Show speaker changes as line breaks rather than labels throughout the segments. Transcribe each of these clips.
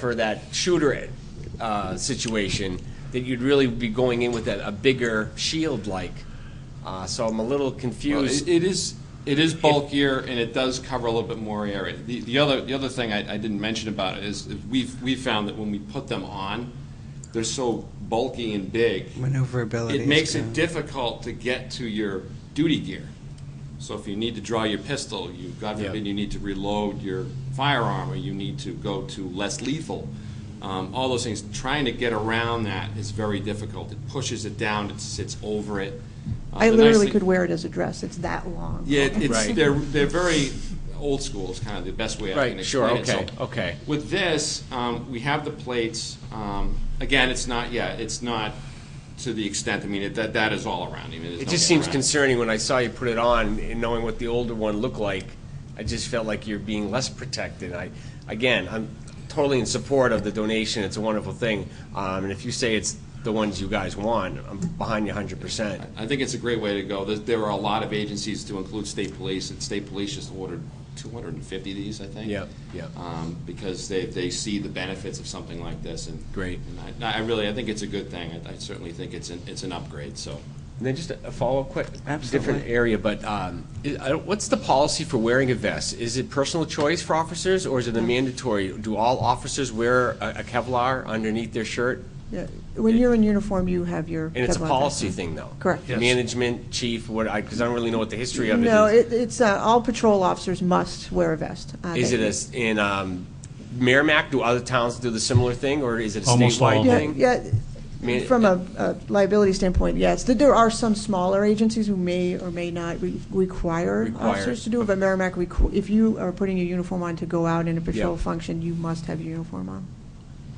for that shooter uh, situation, that you'd really be going in with a, a bigger shield like. Uh, so I'm a little
Well,
confused.
It it is, it is bulkier, and it does cover a little bit more area. The, the other, the other thing I, I didn't mention about it is, is we've, we found that when we put them on, they're so bulky and big,
Maneuverability.
it
is
makes it
gone.
difficult to get to your duty gear. So if you need to draw your pistol, you, God
Yeah.
forbid, you need to reload your firearm, or you need to go to less lethal, um, all those things, trying to get around that is very difficult. It pushes it down, it sits over it. Uh,
I
the nice
literally
thing-
could wear it as a dress, it's that long.
yeah, it- it's,
Right.
they're, they're very old school, is kind of the best way I
Right,
can
sure,
explain it.
okay,
So
okay.
With this, um, we have the plates, um, again, it's not, yeah, it's not to the extent, I mean, it- that, that is all around, I mean, there's
It just
no getting
seems
around
concerning when I saw you put it on and knowing what the older one looked like, I just felt like you're being less protected. I, again, I'm totally in support of the donation. It's a wonderful thing. Um, and if you say it's the ones you guys want, I'm behind you 100%.
I think it's a great way to go. There, there are a lot of agencies to include state police, and state police just ordered two hundred and fifty of these, I think.
Yep, yep.
Um, because they, they see the benefits of something like this, and.
Great.
And I, I really, I think it's a good thing. I, I certainly think it's an, it's an upgrade, so.
And then just a a follow-up quick, different
Absolutely.
area, but um, i- I don't- what's the policy for wearing a vest? Is it personal choice for officers, or is it a mandatory? Do all officers wear a a Kevlar underneath their shirt?
Yeah. When you're in uniform, you have your.
And it's a
Kevlar vest.
policy thing, though?
Correct. Yes.
Management, chief, what, I, because I don't really know what the history of it is.
No, it, it's, uh, all patrol officers must wear a vest. Uh,
Is
they-
it a s in um, Merrimack, do other towns do the similar thing, or is it a
Almost all
statewide
of
Yeah,
thing?
yeah,
mean,
from a a liability standpoint, yes. There- There are some smaller agencies who may or may not re- require
Require.
officers to do it, but Merrimack, requ- if you are putting your uniform on to go out in a patrol
Yeah.
function, you must have your uniform on.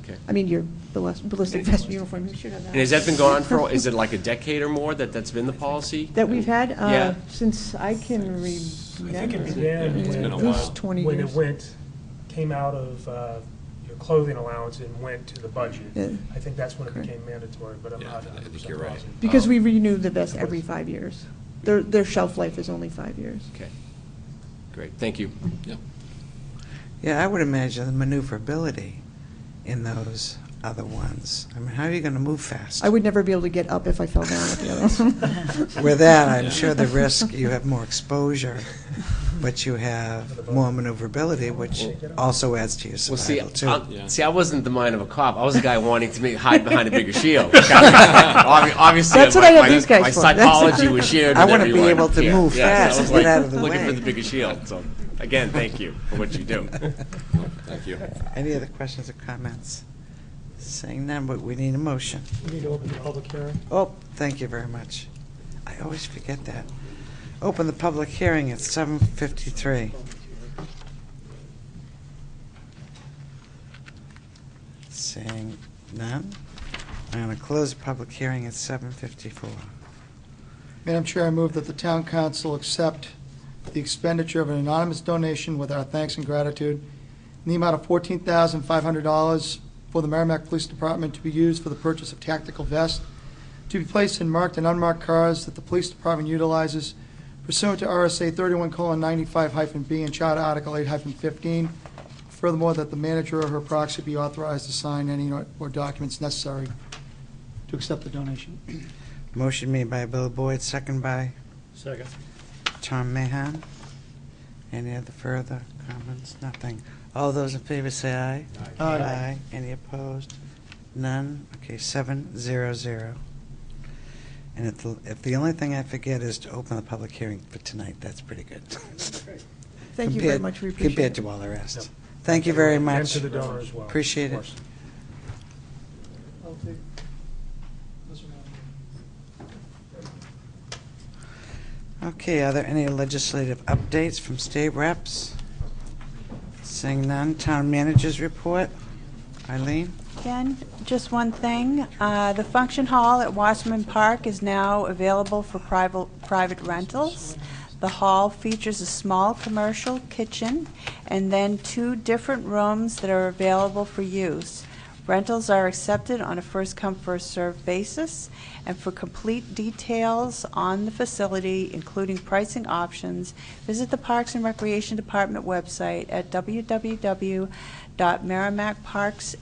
Okay.
I mean, your ballis- ballistic vest uniform, you should have that.
And has that been going on for, is it like a decade or more that that's been the policy?
That we've had,
Yeah.
uh, since I can remember.
I think it began
It's
when.
been a
At least
while.
20
When
years.
it went, came out of uh, your clothing allowance and went to the budget.
Yeah.
I think that's when it
Correct.
became mandatory, but I'm
Yeah,
not
I think
100%
you're right.
positive.
Because we renew the vest every five years. Their, their shelf life is only five years.
Okay, great, thank you.
Yeah, I would imagine the maneuverability in those other ones. I mean, how are you going to move fast?
I would never be able to get up if I fell down with the others.
With that, I'm
Yeah.
sure the risk, you have more exposure, but you have more maneuverability, which also adds to your
Well, see,
survival, too.
I,
Yeah.
see, I wasn't the mind of a cop. I was a guy wanting to make, hide behind a bigger shield. Obvi- Obviously,
That's
my,
what I have
my,
these guys
my
for.
psychology
That's-
was shared.
I
with
wanna be
everyone
able to
here.
move
Yeah,
fast
so I was
and get
like,
out of the
looking for
way.
the bigger shield. So, again, thank you for what you do.
Thank you.
Any other questions or comments? Seeing none, but we need a motion.
We need to open the public hearing.
Oh, thank you very much. I always forget that. Open the public hearing at 7:53. Seeing none, I'm going to close the public hearing at 7:54.
Madam Chair, I move that the town council accept the expenditure of an anonymous donation with our thanks and gratitude in the amount of $14,500 for the Merrimack Police Department to be used for the purchase of tactical vests to be placed in marked and unmarked cars that the police department utilizes pursuant to RSA 31:95-B and Charter Article 8-15. Furthermore, that the manager or her proxy be authorized to sign any or or documents necessary to accept the donation.
Motion made by Bill Boyd, second by
Second.
Tom Mahan. Any other further comments? Nothing. All those in favor say aye.
Aye.
Any opposed? None? Okay, seven, zero, zero. And if, the- if the only thing I forget is to open the public hearing for tonight, that's pretty good.
Thank you very
Compared-
much, we appreciate it.
Compared to all the rest. Thank you very
And
much.
to the donor as well. of
Appreciate it.
course.
I'll take this one.
Okay, are there any legislative updates from state reps? Seeing none, town managers report. Eileen?
Again, just one thing. Uh, The function hall at Wasserman Park is now available for private private rentals. The hall features a small commercial kitchen and then two different rooms that are available for use. Rentals are accepted on a first-come, first-served basis, and for complete details on the facility, including pricing options, visit the Parks and Recreation Department website at www
dot merrimackparks